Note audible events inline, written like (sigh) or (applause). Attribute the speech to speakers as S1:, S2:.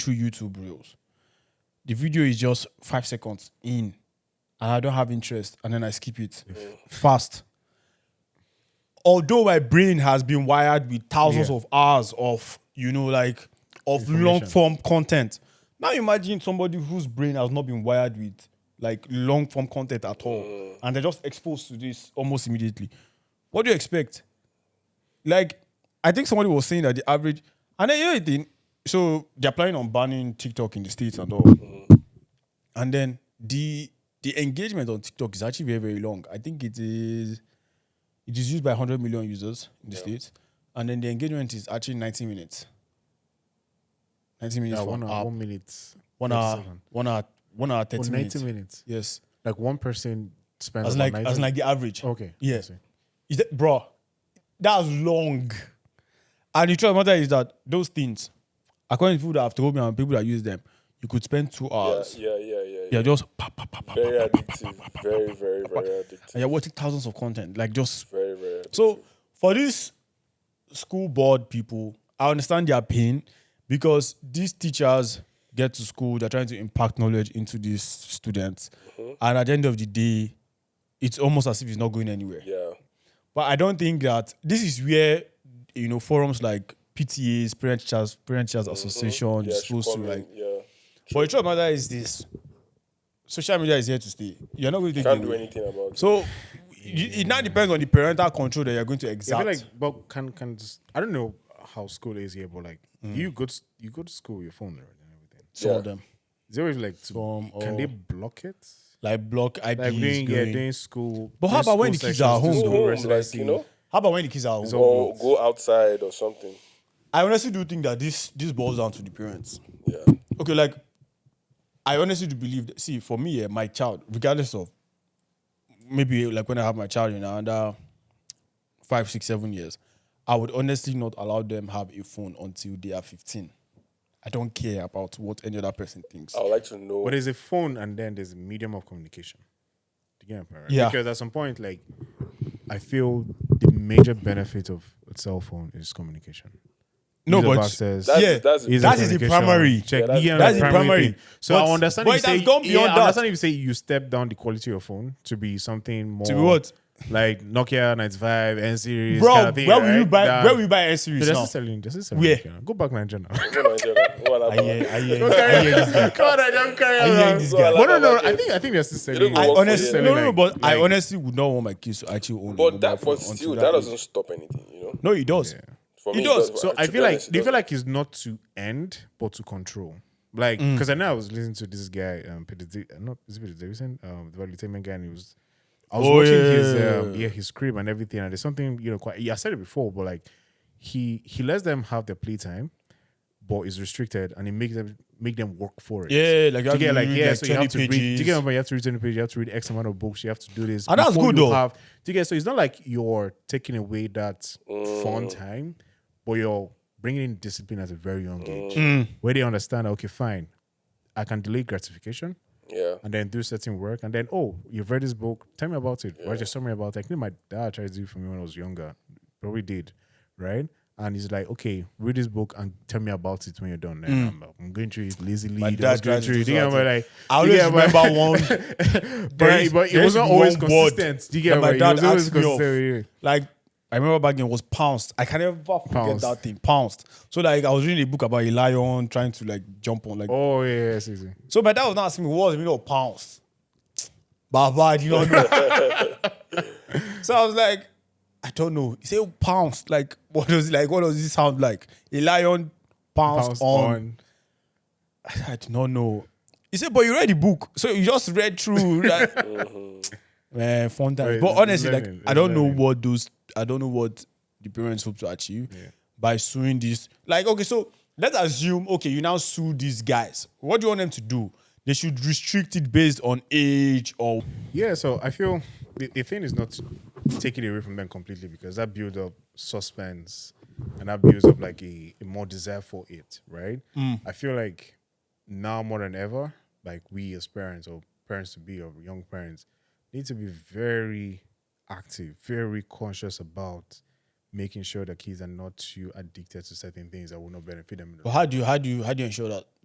S1: through YouTube reels. The video is just five seconds in, and I don't have interest, and then I skip it fast. Although my brain has been wired with thousands
S2: Yeah.
S1: of hours of, you know, like of long form content. Now imagine somebody whose brain has not been wired with like long form content at all, and they're just exposed to this almost immediately. What do you expect? like I think somebody was saying that the average and then you know the thing, so they're planning on banning TikTok in the States and all. And then the the engagement on TikTok is actually very, very long. I think it is it is used by 100 million users in the States. And then the engagement is actually 90 minutes. 90 minutes
S2: Yeah,
S1: for
S2: one
S1: an
S2: hour,
S1: app.
S2: one minute,
S1: One
S2: thirty
S1: hour,
S2: second.
S1: one hour, one hour, 30
S2: Oh,
S1: minutes.
S2: ninety minutes.
S1: Yes.
S2: Like one person spends.
S1: As
S2: about
S1: like
S2: 90
S1: as like the average.
S2: Okay.
S1: Yeah.
S2: I see.
S1: Is that, bro, that's long. And the truth of the matter is that those things, according to people that have told me and people that use them, you could spend two
S3: Yeah,
S1: hours.
S3: yeah, yeah, yeah. yeah.
S1: You're just pa, pa, pa, pa, pa,
S3: Very
S1: pa, pa, pa,
S3: addictive. Very, very, very addictive.
S1: and you're watching thousands of content. Like just
S3: Very, very. Addictive.
S1: so for these school board people, I understand their pain because these teachers get to school, they're trying to impact knowledge into these students.
S3: Mm-hmm.
S1: And at the end of the day, it's almost as if it's not going anywhere.
S3: yeah,
S1: But I don't think that this is where you know forums like PTAs, Parent Teachers, Parent Teachers Association,
S3: Mm-hmm. yeah.
S1: is
S3: should
S1: supposed to
S3: come in,
S1: like.
S3: Yeah,
S1: But the truth of the matter is this: social media is here to stay. You're not going to take
S3: can't
S1: it
S3: do
S1: away.
S3: anything about it.
S1: So it, it now depends on the parental control that you're going to
S2: I
S1: exert.
S2: feel like, but can can just, I don't know how school is here, but like
S1: Mm.
S2: you go to, you go to school with your phone right, and everything.
S1: some
S3: Yeah.
S1: of them,
S2: Is there always like to,
S1: Some
S2: can
S1: or-
S2: they block it?
S1: like block IPs
S2: Like doing yeah
S1: going.
S2: doing school.
S1: But how
S2: doing
S1: about when the
S2: school
S1: kids are home?
S2: sessions, doing
S3: Go
S1: though?
S2: school
S3: home,
S2: rest
S3: like
S2: lesson.
S3: you know,
S1: How about when the kids are home?
S2: all-
S3: or go outside or something.
S1: I honestly do think that this this boils down to the parents.
S3: Yeah,
S1: okay, like I honestly do believe that see for me, yeah, my child, regardless of maybe like when I have my child in under five, six, seven years, I would honestly not allow them have a phone until they are 15. I don't care about what any other person thinks.
S3: I would like to know.
S2: But there's a phone and then there's a medium of communication. Do you get my point, right?
S1: Yeah.
S2: Because at some point, like, I feel the major benefit of a cell phone is communication.
S1: no,
S2: Ease of
S1: but
S2: access,
S3: That's-
S1: yeah,
S3: that's-
S2: ease of
S1: that is the
S2: communication,
S1: primary.
S2: Check,
S3: Yeah,
S2: yeah,
S1: that's
S2: that's the
S1: the
S2: primary.
S1: primary.
S2: thing. So
S1: But-
S2: I understand.
S1: but
S2: if
S1: it
S2: you say,
S1: has gone beyond
S2: yeah,
S1: that.
S2: I understand if you say you step down the quality of your phone to be something more
S1: To be what?
S2: like Nokia 95 N series.
S1: bro,
S2: kind of thing,
S1: where will
S2: right?
S1: you buy
S2: That-
S1: where will you buy a series
S2: Dude,
S1: now?
S2: that's selling. That's selling.
S1: Where?
S2: Nokia. Go
S1: (laughs)
S2: back Nigeria. now.
S3: Go on, Angela. Go on,
S1: I
S3: Abba.
S1: hear, I (laughs) hear, I hear this guy.
S2: God, I don't carry
S1: hearing
S2: around.
S1: this
S3: Go on,
S1: guy.
S2: But no,
S3: Abba,
S2: no,
S3: like
S2: I
S3: it.
S2: think I think they're still
S3: don't
S2: selling.
S3: go
S1: I
S3: work for
S1: honestly,
S3: them.
S1: no, no, no, but I
S2: Like-
S1: honestly would not want my kids to actually own. a mobile
S3: But that,
S1: phone
S3: but
S1: until
S3: still,
S1: that
S3: that
S1: age.
S3: doesn't stop anything, you know.
S1: No, it does.
S3: For
S1: It
S3: me, uh,
S1: does.
S2: So
S3: to
S2: I
S3: be
S2: feel like
S3: honest, it
S2: they feel
S3: doesn't.
S2: like it's not to end but to control. Like
S1: Mm.
S2: because I know I was listening to this guy, um, Peter, D- uh, not is it Peter Davison, um, the value entertainment guy, and he was. I was
S1: Oh,
S2: watching his
S1: yeah.
S2: um, yeah his crib and everything, and there's something you know quite. Yeah, I said it before, but like he he lets them have their playtime, but is restricted, and he makes them make them work for it.
S1: Yeah, like you
S2: to
S1: have
S2: get
S1: to
S2: like
S1: read,
S2: yeah,
S1: like,
S2: so you
S1: 20
S2: have to read. To
S1: pages.
S2: get remember, you have to read 20 pages, you have to read X amount of books, you have to do this.
S1: And that's
S2: before
S1: good
S2: you
S1: though.
S2: Have, to get so it's not like you're taking away that fun time, but you're bringing in discipline at a very young age, where they understand. Okay, fine, I can delay gratification
S3: yeah.
S2: and then do certain work, and then oh, you've read this book. Tell me about it. Write a summary about it. I think my dad tried to do it for me when I was younger. Probably did, right? And he's like, okay, read this book and tell me about it when you're done. Then I'm, like, I'm going through it lazily.
S1: Mm. My
S2: then
S1: dad
S2: I was going
S1: tried to
S2: through
S1: do
S2: it. You get
S1: something.
S2: what I'm like,
S1: I
S2: you
S1: always
S2: get what I'm-
S1: remember
S2: (laughs)
S1: one.
S2: but,
S1: there is-
S2: but
S1: there is
S2: it wasn't always
S1: one word
S2: consistent. Do you
S1: that
S2: get
S1: my
S2: what
S1: dad
S2: It was always
S1: asked me off.
S2: consistent.
S1: Like I remember back then it was pounced. I can never forget
S2: Pounced.
S1: that thing. Pounced. So like I was reading a book about a lion trying to like jump on like.
S2: Oh yeah, yeah, see, see.
S1: So my dad was not asking me what was the meaning of pounced. Baba, I did not know. (laughs) so I was like, I don't know. He said "Oh, pounced. Like (laughs) what does it like? What does this sound like? A lion pounced,
S2: Pounced
S1: on. I did not know. He said, but you read the book. So you just read through (laughs) that. Man, fun times.
S2: Right,
S1: But
S2: it's
S1: honestly, like
S2: learning,
S1: I don't
S2: it's
S1: know
S2: learning.
S1: what those I don't know what the parents hope to achieve by suing this. Like, okay, so let's assume, okay, you now sue these guys. What do you want them to do? They should restrict it based on age or
S2: Yeah, so I feel the, the thing is not taking away from them completely because that builds up suspense and that builds up like a, a more desire for it, right? I feel like now more than ever, like we as parents or parents to be or young parents need to be very active, very conscious about making sure that kids are not too addicted to certain things that will not benefit them. in the
S1: but how do you how do you how do you ensure that